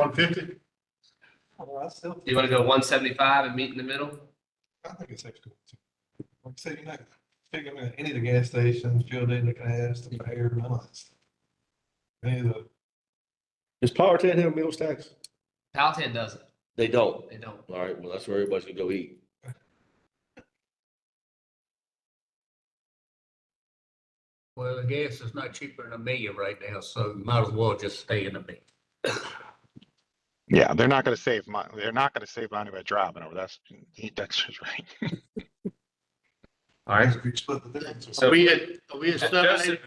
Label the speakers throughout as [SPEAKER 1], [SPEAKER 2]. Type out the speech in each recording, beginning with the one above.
[SPEAKER 1] one fifty?
[SPEAKER 2] Well, Oh, I still,
[SPEAKER 3] Do you want to go one seventy-five and meet in the middle?
[SPEAKER 2] I think it's extra. Like I said, you're not picking up any of the gas stations, fuel dealer gas, the mayor, none of this. Any of the,
[SPEAKER 4] Does Powhatan have meals tax?
[SPEAKER 3] Palatine doesn't.
[SPEAKER 4] They don't.
[SPEAKER 3] They don't.
[SPEAKER 4] All right, well, that's where everybody's gonna go eat.
[SPEAKER 5] Well, the gas is not cheaper than a million right now, so might as well just stay in a million.
[SPEAKER 1] Yeah, they're not gonna save money. They're not gonna save money by driving over. That's, that's just right.
[SPEAKER 3] All right.
[SPEAKER 2] if you split the difference.
[SPEAKER 3] So-
[SPEAKER 6] Are we at, are we at seven eighty?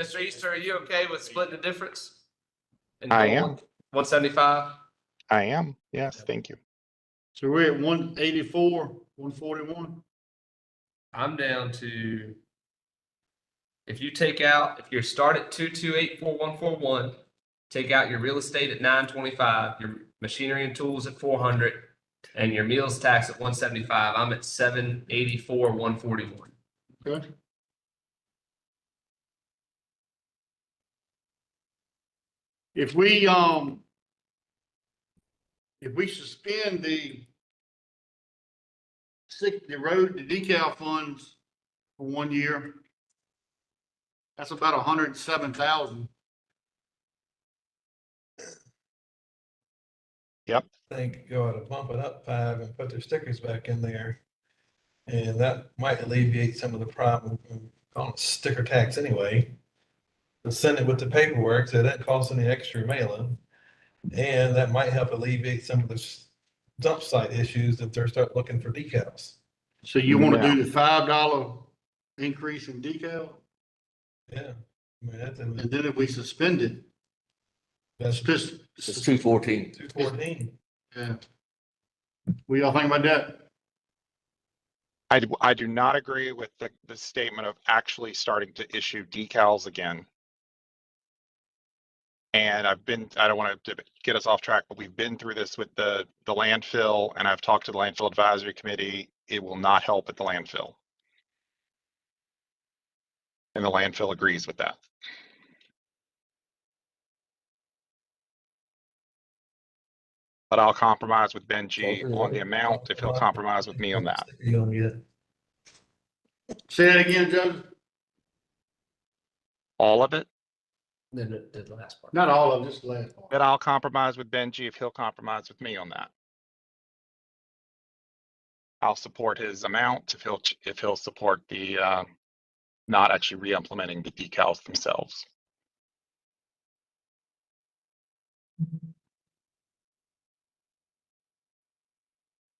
[SPEAKER 3] Mr. Easter, are you okay with splitting the difference?
[SPEAKER 1] I am.
[SPEAKER 3] One seventy-five?
[SPEAKER 1] I am. Yes, thank you.
[SPEAKER 6] So we're at one eighty-four, one forty-one?
[SPEAKER 3] I'm down to. If you take out, if you start at two, two, eight, four, one, four, one, take out your real estate at nine twenty-five, your machinery and tools at four hundred. And your meals tax at one seventy-five, I'm at seven eighty-four, one forty-one.
[SPEAKER 6] Okay. If we, um, if we suspend the sick, the road, the decal funds for one year, that's about a hundred and seven thousand.
[SPEAKER 2] think go out and bump it up five and put their stickers back in there. And that might alleviate some of the problem, of calling it sticker tax anyway. But send it with the paperwork, so that costs any extra mailing. And that might help alleviate some of the s- dump site issues if they're start looking for decals.
[SPEAKER 6] So you want to do the five dollar increase in decal?
[SPEAKER 2] Yeah. I mean, that's,
[SPEAKER 6] And then if we suspend it,
[SPEAKER 2] that's
[SPEAKER 6] suspend,
[SPEAKER 4] It's two fourteen.
[SPEAKER 2] two fourteen.
[SPEAKER 6] yeah. What y'all think about that?
[SPEAKER 1] I, d- I do not agree with the, the statement of actually starting to issue decals again. And I've been, I don't want to get us off track, but we've been through this with the, the landfill and I've talked to the landfill advisory committee. It will not help at the landfill. And the landfill agrees with that. But I'll compromise with Benji on the amount if he'll compromise with me on that.
[SPEAKER 2] You gonna get it.
[SPEAKER 6] Say that again, Judge?
[SPEAKER 1] all of it,
[SPEAKER 3] Then the, the last part.
[SPEAKER 6] Not all of them, just the last part.
[SPEAKER 1] then I'll compromise with Benji if he'll compromise with me on that. I'll support his amount if he'll, ch- if he'll support the, uh, not actually re-implementing the decals themselves.
[SPEAKER 6] Mm-hmm.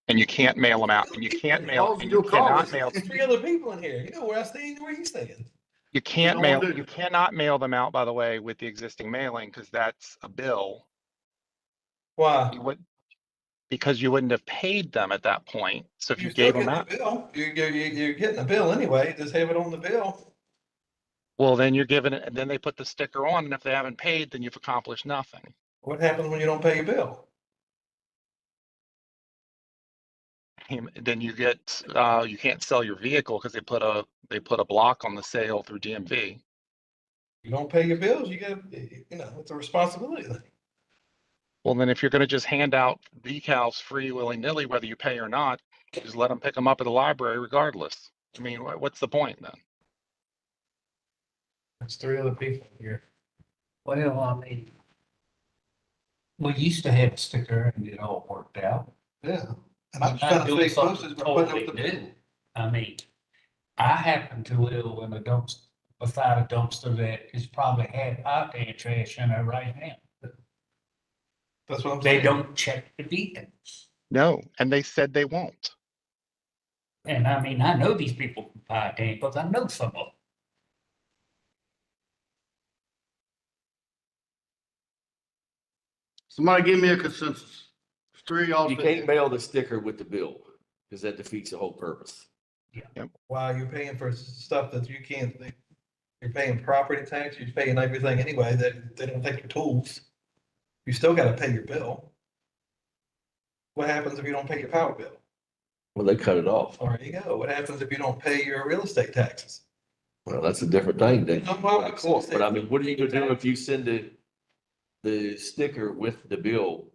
[SPEAKER 1] And you can't mail them out, and you can't mail,
[SPEAKER 6] Well,
[SPEAKER 1] and you
[SPEAKER 6] you'll call
[SPEAKER 1] cannot
[SPEAKER 6] us.
[SPEAKER 1] mail,
[SPEAKER 2] Three other people in here. You know where I stand, where you stand.
[SPEAKER 1] you can't
[SPEAKER 6] don't wanna
[SPEAKER 1] mail,
[SPEAKER 6] do
[SPEAKER 1] you
[SPEAKER 6] that.
[SPEAKER 1] cannot mail them out, by the way, with the existing mailing, because that's a bill.
[SPEAKER 2] Why?
[SPEAKER 1] you would, because you wouldn't have paid them at that point. So if you
[SPEAKER 2] You're still
[SPEAKER 1] gave them
[SPEAKER 2] getting a
[SPEAKER 1] out,
[SPEAKER 2] bill. You're, you're, you're you're getting a bill anyway, just have it on the bill.
[SPEAKER 1] well, then you're giving it, and then they put the sticker on, and if they haven't paid, then you've accomplished nothing.
[SPEAKER 2] What happens when you don't pay your bill?
[SPEAKER 1] Um, Then you get, uh, you can't sell your vehicle because they put a, they put a block on the sale through DMV.
[SPEAKER 2] You don't pay your bills, you get, you know, it's a responsibility thing.
[SPEAKER 1] Well, then if you're gonna just hand out decals free willy-nilly, whether you pay or not, just let them pick them up at the library regardless. I mean, wha- what's the point then?
[SPEAKER 2] There's three other people here.
[SPEAKER 5] Well, I mean. We used to have a sticker and it all worked out.
[SPEAKER 2] Yeah. And I'm
[SPEAKER 5] I'm
[SPEAKER 2] trying
[SPEAKER 5] not
[SPEAKER 2] to
[SPEAKER 5] doing
[SPEAKER 2] stay closest,
[SPEAKER 5] something
[SPEAKER 2] but putting up
[SPEAKER 5] totally
[SPEAKER 2] the-
[SPEAKER 5] new. I mean, I happen to live in a dumpster, beside a dumpster that is probably had Powhatan trash in it right now.
[SPEAKER 2] That's what I'm
[SPEAKER 5] They
[SPEAKER 2] saying.
[SPEAKER 5] don't check the beacons.
[SPEAKER 1] No, and they said they won't.
[SPEAKER 5] And I mean, I know these people from Powhatan because I know some of them.
[SPEAKER 6] Somebody give me a consensus. Three all.
[SPEAKER 4] You can't mail the sticker with the bill, because that defeats the whole purpose.
[SPEAKER 2] Why you're paying for stuff that you can't, think- you're paying property tax, you're paying everything anyway, that they don't take your tools. You still gotta pay your bill. What happens if you don't pay your power bill?
[SPEAKER 4] Well, they cut it off.
[SPEAKER 2] There you go. What happens if you don't pay your real estate taxes?
[SPEAKER 4] Well, that's a different thing, they.
[SPEAKER 2] No, well,
[SPEAKER 4] Of course, But I mean, what are you gonna do if you send the the sticker with the bill